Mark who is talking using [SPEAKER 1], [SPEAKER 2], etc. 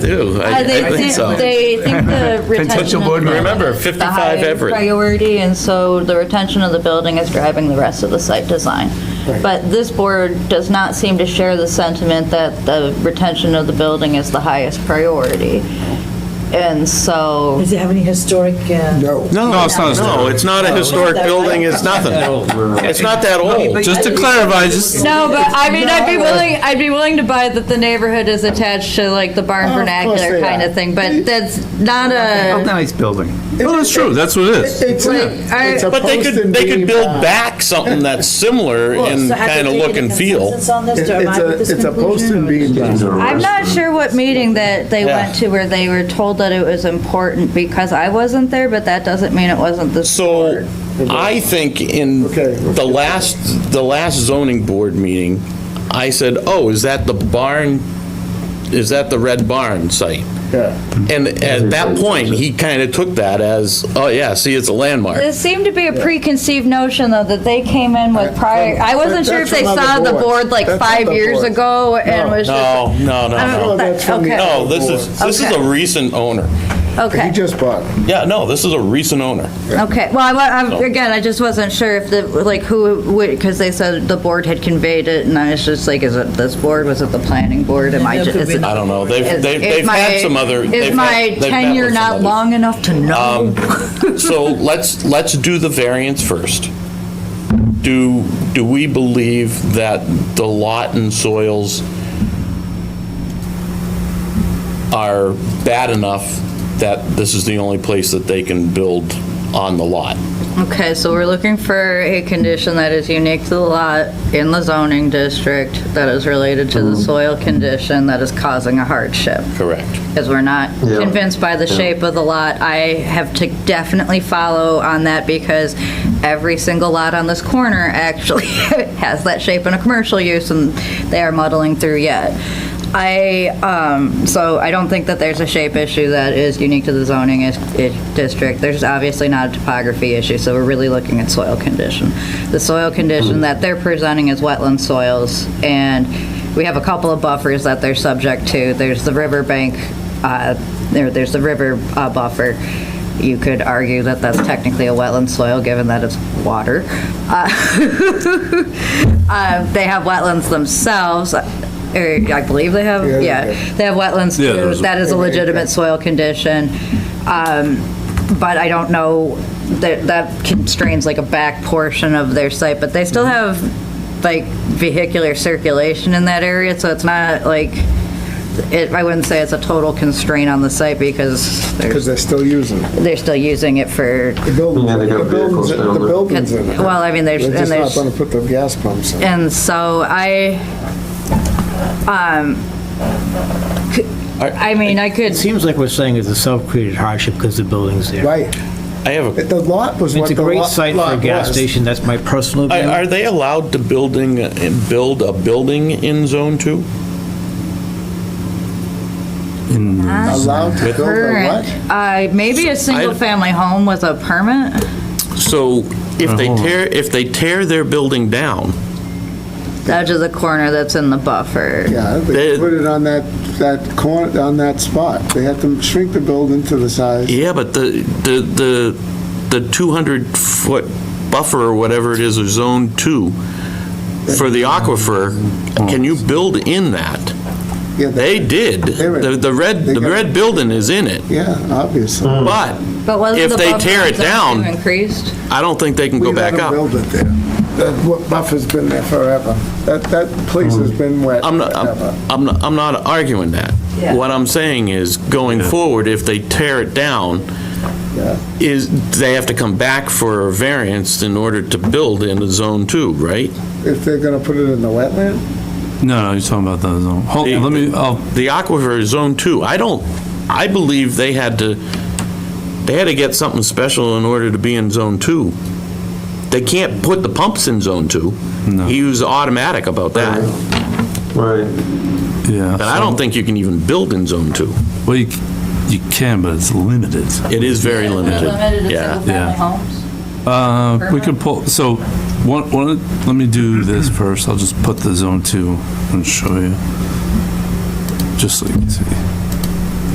[SPEAKER 1] do. I
[SPEAKER 2] Uh, They
[SPEAKER 1] I think so.
[SPEAKER 2] They think the retention.
[SPEAKER 3] Potential
[SPEAKER 2] of
[SPEAKER 3] board
[SPEAKER 2] the
[SPEAKER 3] member.
[SPEAKER 1] Remember,
[SPEAKER 2] building is the
[SPEAKER 1] 55
[SPEAKER 2] highest
[SPEAKER 1] Everett.
[SPEAKER 2] Priority, and so the retention of the building is driving the rest of the site design. But this board does not seem to share the sentiment that the retention of the building is the highest priority. And so,
[SPEAKER 4] Does it have any historic? uh, No.
[SPEAKER 3] No, it's not a
[SPEAKER 1] No,
[SPEAKER 3] story.
[SPEAKER 1] it's not a historic building, it's nothing. It's not that old.
[SPEAKER 3] Just to clarify, just,
[SPEAKER 2] no, but I mean, I'd be
[SPEAKER 4] No.
[SPEAKER 2] willing, I'd be willing to buy that the neighborhood is attached to like the barn
[SPEAKER 5] Oh, of course
[SPEAKER 2] vernacular
[SPEAKER 5] they
[SPEAKER 2] kind
[SPEAKER 5] are.
[SPEAKER 2] of thing, but that's not
[SPEAKER 3] a
[SPEAKER 2] a,
[SPEAKER 3] nice building. Well, Oh, that's true, that's what it is.
[SPEAKER 5] It's
[SPEAKER 2] Like,
[SPEAKER 5] a-
[SPEAKER 2] I-
[SPEAKER 5] it's a
[SPEAKER 1] But they
[SPEAKER 5] post
[SPEAKER 1] could,
[SPEAKER 5] and
[SPEAKER 1] they could
[SPEAKER 5] beam
[SPEAKER 1] build
[SPEAKER 5] house.
[SPEAKER 1] back something that's similar in kind of look and feel.
[SPEAKER 4] It's on this,
[SPEAKER 5] It-
[SPEAKER 4] to
[SPEAKER 5] It's
[SPEAKER 4] arrive at
[SPEAKER 5] a,
[SPEAKER 4] this
[SPEAKER 5] it's a post
[SPEAKER 4] conclusion,
[SPEAKER 5] and
[SPEAKER 4] or-
[SPEAKER 5] beam house.
[SPEAKER 6] Oh,
[SPEAKER 2] I'm not sure what meeting that they
[SPEAKER 1] Yeah.
[SPEAKER 2] went to where they were told that it was important because I wasn't there, but that doesn't mean it wasn't the
[SPEAKER 1] So I think in
[SPEAKER 5] Okay.
[SPEAKER 1] the last, the last zoning board meeting, I said, oh, is that the barn, is that the red barn site?
[SPEAKER 5] Yeah.
[SPEAKER 1] And at that point, he kind of took that as, oh, yeah, see, it's a landmark.
[SPEAKER 2] This seemed to be a preconceived notion, though, that they came in with prior, I wasn't sure if
[SPEAKER 5] That's
[SPEAKER 2] they
[SPEAKER 5] from
[SPEAKER 2] saw
[SPEAKER 5] other
[SPEAKER 2] the
[SPEAKER 5] boards.
[SPEAKER 2] board like
[SPEAKER 5] That's
[SPEAKER 2] five
[SPEAKER 5] other
[SPEAKER 2] years
[SPEAKER 5] boards.
[SPEAKER 2] ago and was
[SPEAKER 1] No,
[SPEAKER 2] just.
[SPEAKER 1] no, no,
[SPEAKER 2] I don't
[SPEAKER 1] no.
[SPEAKER 2] know
[SPEAKER 5] No,
[SPEAKER 2] if that-
[SPEAKER 5] that's from the-
[SPEAKER 1] No, this is, this is a
[SPEAKER 2] Okay.
[SPEAKER 1] recent owner.
[SPEAKER 5] Oh, He
[SPEAKER 2] Okay,
[SPEAKER 5] just bought. it.
[SPEAKER 1] Yeah, no, this is a recent owner.
[SPEAKER 2] okay. Well, I, wa- I'm- again, I just wasn't sure if the, like, who, because they said the board had conveyed it, and I was just like, is it this board? Was it the planning board? Am I
[SPEAKER 4] Yeah,
[SPEAKER 2] just?
[SPEAKER 4] could
[SPEAKER 2] is
[SPEAKER 4] be.
[SPEAKER 2] it-
[SPEAKER 1] I don't know. They've,
[SPEAKER 2] is-
[SPEAKER 1] they've
[SPEAKER 2] is
[SPEAKER 1] they've had
[SPEAKER 2] my-
[SPEAKER 1] some other.
[SPEAKER 2] Is
[SPEAKER 1] they've had-
[SPEAKER 2] my
[SPEAKER 1] they've met
[SPEAKER 2] tenure
[SPEAKER 1] with Um,
[SPEAKER 2] not
[SPEAKER 1] somebody.
[SPEAKER 2] long enough to know?
[SPEAKER 1] So let's, let's do the variance first. Do, do we believe that the lot and soils are bad enough that this is the only place that they can build on the lot?
[SPEAKER 2] Okay, so we're looking for a condition that is unique to the lot in the zoning district that is related to the soil condition that is causing a hardship.
[SPEAKER 1] Correct.
[SPEAKER 2] Because we're not convinced by the shape of the lot. I have to definitely follow on that because every single lot on this corner actually has that shape in a commercial use and they are muddling through yet. I, um, so I don't think that there's a shape issue that is unique to the zoning is, is district. There's obviously not a topography issue, so we're really looking at soil condition. The soil condition that they're presenting is wetland soils, and we have a couple of buffers that they're subject to. There's the riverbank, uh, there, there's the river, uh, buffer. You could argue that that's technically a wetland soil, given that it's water. Uh, Uh, they have wetlands themselves, or I believe they have,
[SPEAKER 5] Yeah, they
[SPEAKER 2] yeah,
[SPEAKER 5] do.
[SPEAKER 2] they have wetlands
[SPEAKER 3] Yeah,
[SPEAKER 2] too.
[SPEAKER 3] there's a-
[SPEAKER 2] That is a legitimate soil condition. Um, But I don't know, that, that constrains like a back portion of their site, but they still have like vehicular circulation in that area, so it's not like, it, I wouldn't say it's a total constraint on the site because
[SPEAKER 5] Because
[SPEAKER 2] they're,
[SPEAKER 5] they're still using it.
[SPEAKER 2] they're still using it for,
[SPEAKER 5] The building,
[SPEAKER 6] Yeah, they got
[SPEAKER 5] the building's,
[SPEAKER 6] vehicles down
[SPEAKER 5] the
[SPEAKER 6] there.
[SPEAKER 5] building's in it.
[SPEAKER 2] well, I mean, there's,
[SPEAKER 5] They're
[SPEAKER 2] and
[SPEAKER 5] just not
[SPEAKER 2] there's.
[SPEAKER 5] gonna put the gas pumps in.
[SPEAKER 2] And so I, um, I mean, I could,
[SPEAKER 7] It seems like we're saying it's a self-created hardship because the building's there.
[SPEAKER 5] Right.
[SPEAKER 1] I have a,
[SPEAKER 5] The lot was what
[SPEAKER 7] It's
[SPEAKER 5] the
[SPEAKER 7] a great
[SPEAKER 5] lot-
[SPEAKER 7] site for a
[SPEAKER 5] lot
[SPEAKER 7] gas
[SPEAKER 5] was.
[SPEAKER 7] station, that's my personal
[SPEAKER 1] are- are
[SPEAKER 7] view.
[SPEAKER 1] they allowed to building, build a building in Zone 2?
[SPEAKER 5] Allowed to build a
[SPEAKER 2] current,
[SPEAKER 5] what?
[SPEAKER 2] uh, maybe a single-family home with a permit?
[SPEAKER 1] So if they tear, if they tear their building down,
[SPEAKER 2] That's just the corner that's in the buffer.
[SPEAKER 5] Yeah,
[SPEAKER 1] They-
[SPEAKER 5] they put it on that, that corner, on that spot. They had to shrink the building to the size.
[SPEAKER 1] Yeah, but the, the, the, the 200-foot buffer or whatever it is, or zone two, for the aquifer, can you build in that?
[SPEAKER 5] Yeah,
[SPEAKER 1] They did. The, the red, the red building is in it,
[SPEAKER 5] Yeah, obviously.
[SPEAKER 1] but
[SPEAKER 2] But wasn't
[SPEAKER 1] If
[SPEAKER 2] the
[SPEAKER 1] they
[SPEAKER 2] buffer
[SPEAKER 1] tear it
[SPEAKER 2] zone
[SPEAKER 1] down-
[SPEAKER 2] Increased?
[SPEAKER 1] I don't think they can go back
[SPEAKER 5] We
[SPEAKER 1] up.
[SPEAKER 5] let 'em build it there. That wa- buffer's been there forever. That, that place has been wet
[SPEAKER 1] I'm not, I'm-
[SPEAKER 5] forever.
[SPEAKER 1] I'm, not- I'm not arguing that.
[SPEAKER 2] Yeah.
[SPEAKER 1] What I'm saying is, going forward, if they tear it down,
[SPEAKER 5] Yeah.
[SPEAKER 1] is, they have to come back for a variance in order to build in the zone two, right?
[SPEAKER 5] If they're gonna put it in the wetland?
[SPEAKER 3] No, no, you're talking about the zone. Hold, let me, I'll
[SPEAKER 1] the aquifer is zone two. I don't, I believe they had to, they had to get something special in order to be in zone two. They can't put the pumps in zone two. He was automatic about that. And
[SPEAKER 6] Right.
[SPEAKER 3] Yeah.
[SPEAKER 1] I don't think you can even build in zone two.
[SPEAKER 3] Well, you, you can, but it's limited.
[SPEAKER 1] It is very limited. Yeah.
[SPEAKER 3] Yeah. Uh, we could pull, so, one, one, let me do this first. I'll just put the zone two and show you. Just so you can see.